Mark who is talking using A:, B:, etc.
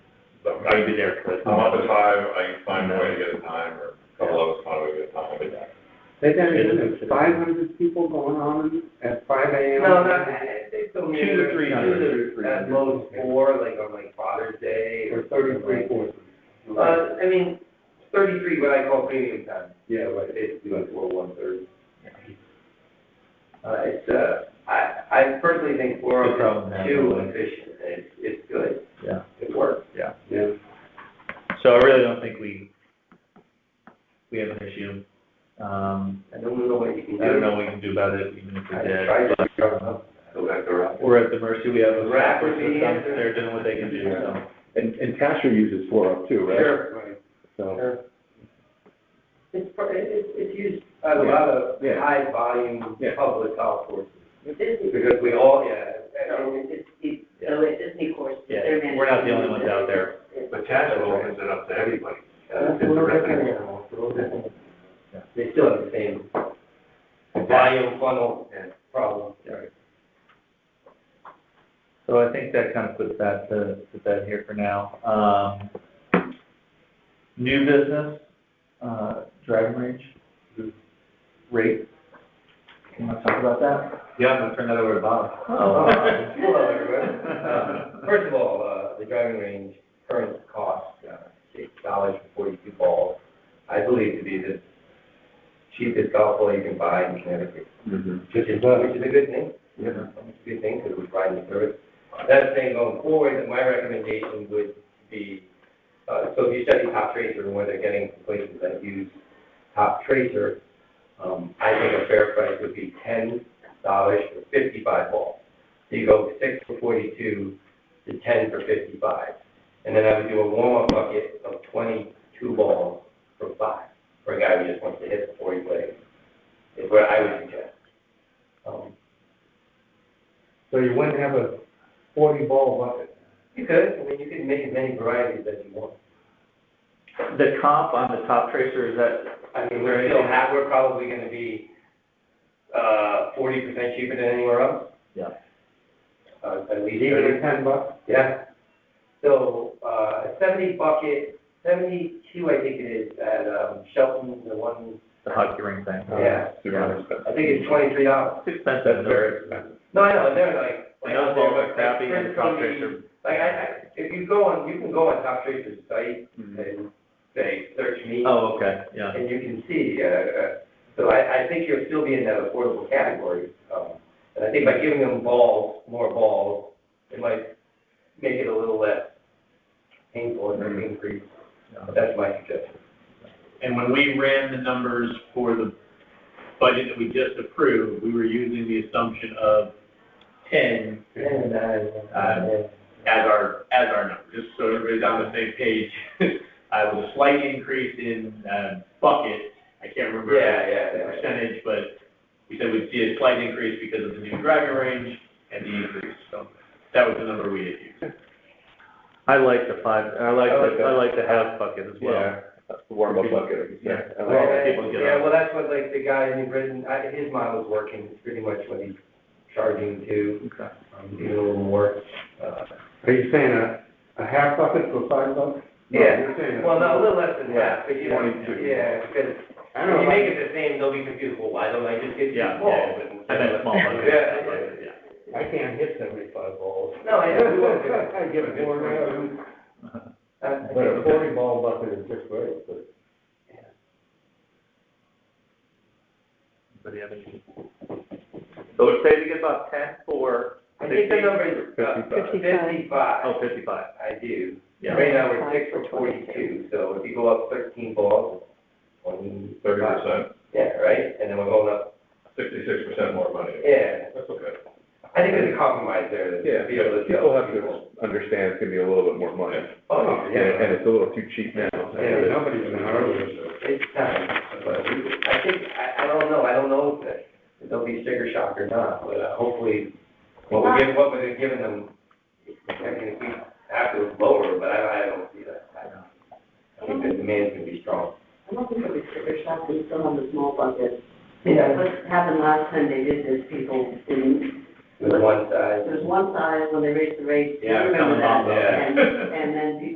A: I'd be there for it.
B: I'm
C: Oh.
B: up at five, I can find a way to get a time, or a couple of us find a way to get a time, but
D: They got, five hundred people going on at five AM.
E: No, not, I think so.
A: Two to three hundred.
E: Two to- At most four, like on like Father's Day
D: Or
E: or.
D: thirty-three, four.
E: Uh, I mean, thirty-three, what I call premium time.
D: Yeah, right.
E: but basically like four one thirty. Uh, it's, uh, I, I personally think four
A: Good problem to
E: is
A: have,
E: too
A: really.
E: efficient, it's, it's good,
A: Yeah,
E: it works.
A: yeah.
D: Yeah.
A: So I really don't think we, we have an issue. Um,
E: I don't know what you can
A: I
E: do.
A: don't know what we can do about it, even if we
E: I
A: did.
E: tried to cover it up, go back around.
A: We're at the mercy, we have a
E: Rack
A: staff
E: would be
A: person,
E: the answer.
A: they're doing what they can do, so.
C: And, and Tasha uses four up too, right?
E: Sure, right,
C: So,
E: sure. It's, pr- it- it's, it's used by a lot of
C: Yeah.
E: high volume
C: Yeah.
E: public health forces,
F: Disney,
E: because we all, yeah,
F: so
E: and
F: it's, it's, so it's Disney course. that
A: Yeah,
F: they're managing.
A: we're not the only ones out there.
B: But Tasha opens it up to everybody. Uh,
E: it's,
B: It's a
E: uh,
B: revenue.
A: Yeah.
E: They still have the same volume funnel problem. Right.
A: So I think that kind of puts that to, to bed here for now. Um, new business, uh, Dragon Range, rate. You want to talk about that? Oh, Yeah, I'm gonna turn that over to Bob.
C: Oh,
E: Uh, Hello, everyone. Uh, First of all, uh, the driving range current cost, uh, six dollars for forty-two balls, I believe to be the cheapest golf ball you can buy in Connecticut,
C: mhm.
E: which is, which is a good thing.
C: Yeah.
E: It's a good thing, because we're trying to serve. That thing going forward, that my recommendation would be, uh, so if you study top tracer and where they're getting places that use top tracer, um, I think a fair price would be ten dollars for fifty-five balls. So you go six for forty-two to ten for fifty-five. And then I would do a warm-up bucket of twenty-two balls for five, for a guy who just wants to hit before he plays, is what I would suggest. Um,
D: So you wouldn't have a forty ball bucket.
E: You could, I mean, you could make as many varieties as you want.
A: The comp on the top tracer, is that,
E: I mean, we're still have, we're probably gonna be, uh, forty percent cheaper than anywhere else.
A: Yeah.
E: Uh, at least.
D: Even at ten bucks?
E: Yeah. So, uh, seventy bucket, seventy-two, I think it is, at, um, Shelton, the one,
A: the hockey ring thing?
E: yeah,
C: Super expensive.
E: I think it's twenty-three dollars.
A: It's expensive, though.
C: expensive.
E: No, I know, they're like.
A: I know it's all about crappy and top tracer.
E: Like, I, I, if you go on, you can go on Top Tracer's site
C: Mhm.
E: and say, search me.
A: Oh, okay, yeah.
E: And you can see, uh, uh, so I, I think you'll still be in that affordable category. um, And I think by giving them balls, more balls, it might make it a little less painful and
C: Mhm.
E: increase.
A: Yeah.
E: That's my suggestion.
G: And when we ran the numbers for the budget that we just approved, we were using the assumption of ten
E: And, uh,
G: Uh, as our, as our number, just so everybody's on the same page. Uh, it was a slight increase in, uh, bucket, I can't remember.
E: Yeah, yeah,
G: The
E: yeah.
G: percentage, but we said we'd see a slight increase because of the new driving range and the increase, so that was the number we had used.
A: I like the five, I like,
E: I like
A: the
E: that.
A: I like the half bucket as well.
C: Yeah, that's the warm-up bucket, like you said. I
A: Well,
C: like
A: I
C: it.
A: think we'll get
E: Yeah,
A: on.
E: well, that's what, like, the guy in New Britain, I, his model's working, it's pretty much what he's charging to,
A: Okay.
E: um, even a little more. uh,
D: Are you saying a, a half bucket for five bucks? No, you're saying
E: Well, no, a little less than that, but you know,
C: 22.
E: yeah, because
D: I don't
E: if you
D: know,
E: make it the same, they'll be confused, well, why don't I just get
A: Yeah,
E: two balls?
A: yeah.
E: and-
A: I meant small bucket.
E: Yeah, yeah, yeah.
D: I can't hit seventy-five balls.
E: No, yeah, we won't do that.
D: I get more than that.
E: Uh,
D: But a forty ball bucket is just great, but.
A: Anybody have any? So we're saving about ten for,
E: I think the number is uh,
F: Fifty-five.
A: oh,
E: fifty-five,
A: fifty-five,
E: I do.
A: yeah.
E: Right now, we're six
F: Five
E: for
F: for
E: forty-two,
F: twenty-two.
E: so if you go up thirteen balls, twenty.
B: Thirty percent,
E: Yeah, right, and then we're going up,
B: sixty-six percent more money.
E: yeah,
B: That's okay.
E: I think there's a compromise there, to
C: Yeah,
E: be able to.
C: but people have to understand it's gonna be a little bit more money.
E: Oh,
C: And,
E: yeah,
C: and it's a little too cheap now.
D: Yeah, nobody's gonna argue with
E: it's time, but I think, I, I don't know, I don't know if it- there'll be sticker shock or not, but uh, hopefully, what we're giving, what we're giving them, I mean, we have to lower, but I, I don't see that. I I think the demand's gonna be strong.
F: I don't think it was sticker shock, they still have the small bucket.
E: Yeah.
F: What happened last time they did this, people didn't,
E: The one size.
F: there's one size when they raised the rate,
G: Yeah,
F: remember
G: coming off
F: that?
G: of-
F: And, and then people